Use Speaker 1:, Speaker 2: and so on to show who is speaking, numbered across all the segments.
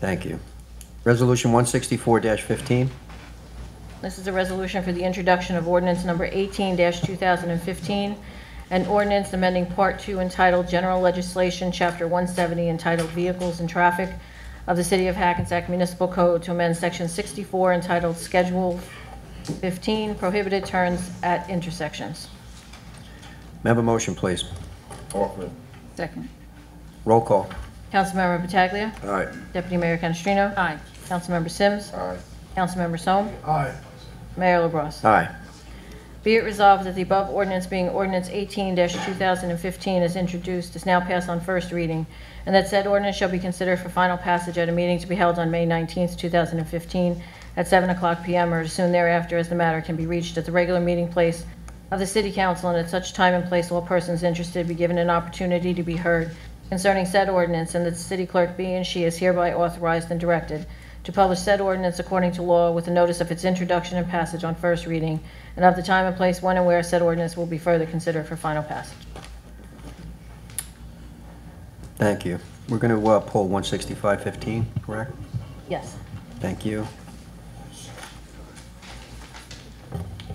Speaker 1: Thank you. Resolution 164-15,
Speaker 2: This is a resolution for the introduction of ordinance number 18-2015, an ordinance amending Part 2 entitled General Legislation, Chapter 170 entitled Vehicles and Traffic of the City of Hackensack Municipal Code to amend Section 64 entitled Schedule 15 Prohibited Turns at Intersections.
Speaker 1: may I have a motion, please?
Speaker 3: Offer it.
Speaker 4: Second.
Speaker 1: Roll call.
Speaker 2: Councilmember Pataglia.
Speaker 3: Aye.
Speaker 2: Deputy Mayor Canestrino.
Speaker 4: Aye.
Speaker 2: Councilmember Sims.
Speaker 3: Aye.
Speaker 2: Councilmember Sol.
Speaker 3: Aye.
Speaker 2: Mayor LaBrus.
Speaker 1: Aye.
Speaker 2: Be it resolved that the above ordinance being ordinance 18-2015 is introduced, is now passed on first reading, and that said ordinance shall be considered for final passage at a meeting to be held on May 19th, 2015, at 7 o'clock p.m. or as soon thereafter as the matter can be reached at the regular meeting place of the city council, and at such time and place all persons interested be given an opportunity to be heard concerning said ordinance, and that the city clerk be and she is hereby authorized and directed to publish said ordinance according to law with a notice of its introduction and passage on first reading, and of the time and place when and where said ordinance will be further considered for final passage.
Speaker 1: Thank you. We're going to pull 165-15, correct?
Speaker 2: Yes.
Speaker 1: Thank you.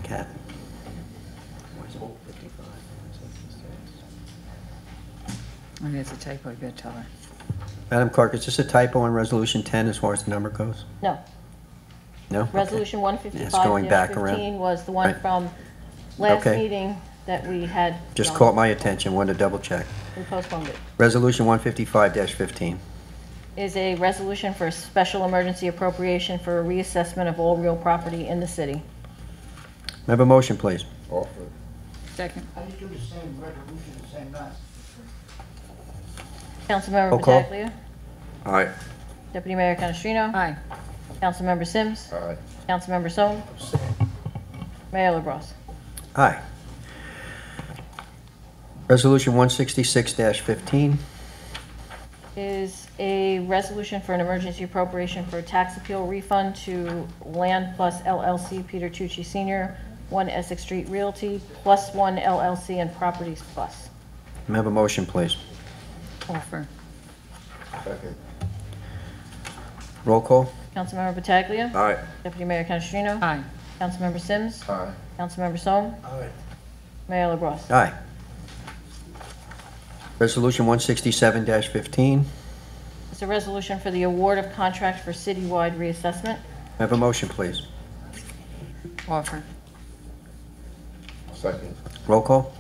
Speaker 1: Cat.
Speaker 4: I think it's a typo, you gotta tell her.
Speaker 1: Madam Clerk, is this a typo on Resolution 10 as far as the number goes?
Speaker 2: No.
Speaker 1: No? Okay.
Speaker 2: Resolution
Speaker 1: It's going back around.
Speaker 2: 155-15 was the one
Speaker 1: Right.
Speaker 2: from last
Speaker 1: Okay.
Speaker 2: meeting that we had.
Speaker 1: Just
Speaker 2: um,
Speaker 1: caught my attention, wanted to double check.
Speaker 2: We postponed it.
Speaker 1: Resolution 155-15.
Speaker 2: Is a resolution for a special emergency appropriation for a reassessment of all real property in the city.
Speaker 1: May I have a motion, please?
Speaker 3: Offer it.
Speaker 4: Second.
Speaker 5: How do you do the same resolution the same night?
Speaker 2: Councilmember
Speaker 1: Roll call.
Speaker 2: Pataglia.
Speaker 3: Aye.
Speaker 2: Deputy Mayor Canestrino.
Speaker 4: Aye.
Speaker 2: Councilmember Sims.
Speaker 3: Aye.
Speaker 2: Councilmember Sol. Mayor LaBrus.
Speaker 1: Aye. Resolution 166-15.
Speaker 2: Is a resolution for an emergency appropriation for a tax appeal refund to Land Plus LLC Peter Tucci Senior, One Essex Street Realty, Plus One LLC and Properties Plus.
Speaker 1: May I have a motion, please?
Speaker 4: Offer.
Speaker 3: Second.
Speaker 1: Roll call.
Speaker 2: Councilmember Pataglia.
Speaker 3: Aye.
Speaker 2: Deputy Mayor Canestrino.
Speaker 4: Aye.
Speaker 2: Councilmember Sims.
Speaker 3: Aye.
Speaker 2: Councilmember Sol.
Speaker 3: Aye.
Speaker 2: Mayor LaBrus.
Speaker 1: Aye. Resolution 167-15. May
Speaker 2: It's a resolution for the award of contract for citywide reassessment.
Speaker 1: I have a motion, please?
Speaker 4: Offer.
Speaker 3: Second.
Speaker 1: Roll call.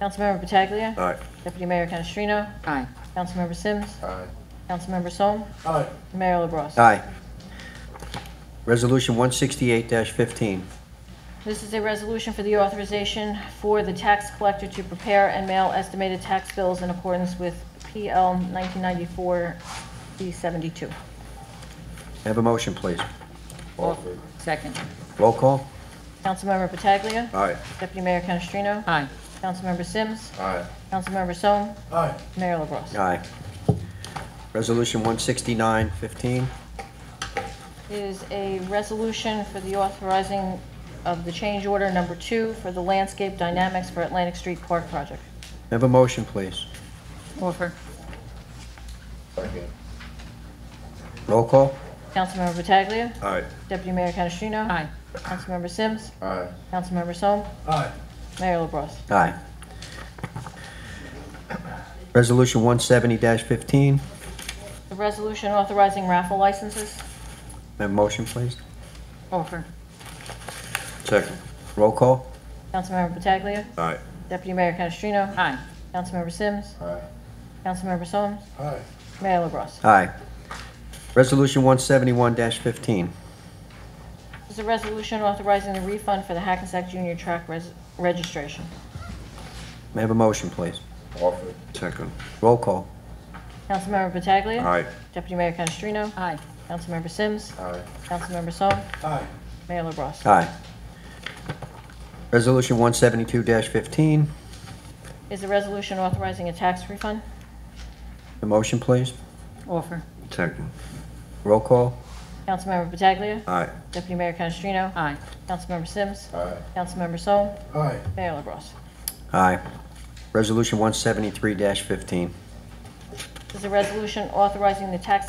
Speaker 2: Councilmember Pataglia.
Speaker 3: Aye.
Speaker 2: Deputy Mayor Canestrino.
Speaker 4: Aye.
Speaker 2: Councilmember Sims.
Speaker 3: Aye.
Speaker 2: Councilmember Sol.
Speaker 3: Aye.
Speaker 2: Mayor LaBrus.
Speaker 1: Aye. Resolution 168-15.
Speaker 2: This is a resolution for the authorization for the tax collector to prepare and mail estimated tax bills in accordance with PL 1994-D72.
Speaker 1: May I Have a motion, please?
Speaker 3: Offer it.
Speaker 4: Second.
Speaker 1: Roll call.
Speaker 2: Councilmember Pataglia.
Speaker 3: Aye.
Speaker 2: Deputy Mayor Canestrino.
Speaker 4: Aye.
Speaker 2: Councilmember Sims.
Speaker 3: Aye.
Speaker 2: Councilmember Sol.
Speaker 3: Aye.
Speaker 2: Mayor LaBrus.
Speaker 1: Aye. Resolution 169-15.
Speaker 2: is a resolution for the authorizing of the change order number two for the landscape dynamics for Atlantic Street Park project.
Speaker 1: May I Have a motion, please?
Speaker 4: Offer.
Speaker 3: Second.
Speaker 1: Roll call.
Speaker 2: Councilmember Pataglia.
Speaker 3: Aye.
Speaker 2: Deputy Mayor Canestrino.
Speaker 4: Aye.
Speaker 2: Councilmember Sims.
Speaker 3: Aye.
Speaker 2: Councilmember Sol.
Speaker 3: Aye.
Speaker 2: Mayor LaBrus.
Speaker 1: Aye. Resolution 170-15. May I
Speaker 2: The resolution authorizing raffle licenses.
Speaker 1: Have a motion, please?
Speaker 4: Offer.
Speaker 1: Second. Roll call.
Speaker 2: Councilmember Pataglia.
Speaker 3: Aye.
Speaker 2: Deputy Mayor Canestrino.
Speaker 4: Aye.
Speaker 2: Councilmember Sims.
Speaker 3: Aye.
Speaker 2: Councilmember Sol.
Speaker 3: Aye.
Speaker 2: Mayor LaBrus.
Speaker 1: Aye. Resolution 171-15.
Speaker 2: This is a resolution authorizing the refund for the Hackensack Junior Track res- registration.
Speaker 1: May I have a motion, please?
Speaker 3: Offer it. Second.
Speaker 1: Roll call.
Speaker 2: Councilmember Pataglia.
Speaker 3: Aye.
Speaker 2: Deputy Mayor Canestrino.
Speaker 4: Aye.
Speaker 2: Councilmember Sims.
Speaker 3: Aye.
Speaker 2: Councilmember Sol.
Speaker 3: Aye.
Speaker 2: Mayor LaBrus.
Speaker 1: Aye. Resolution 172-15.
Speaker 2: Is the resolution authorizing a tax refund?
Speaker 1: The motion, please?
Speaker 4: Offer.
Speaker 3: Second.
Speaker 1: Roll call.
Speaker 2: Councilmember Pataglia.
Speaker 3: Aye.
Speaker 2: Deputy Mayor Canestrino.
Speaker 4: Aye.
Speaker 2: Councilmember Sims.
Speaker 3: Aye.
Speaker 2: Councilmember Sol.
Speaker 3: Aye.
Speaker 2: Mayor LaBrus.
Speaker 1: Aye. Resolution 173-15. May
Speaker 2: Is the resolution authorizing the tax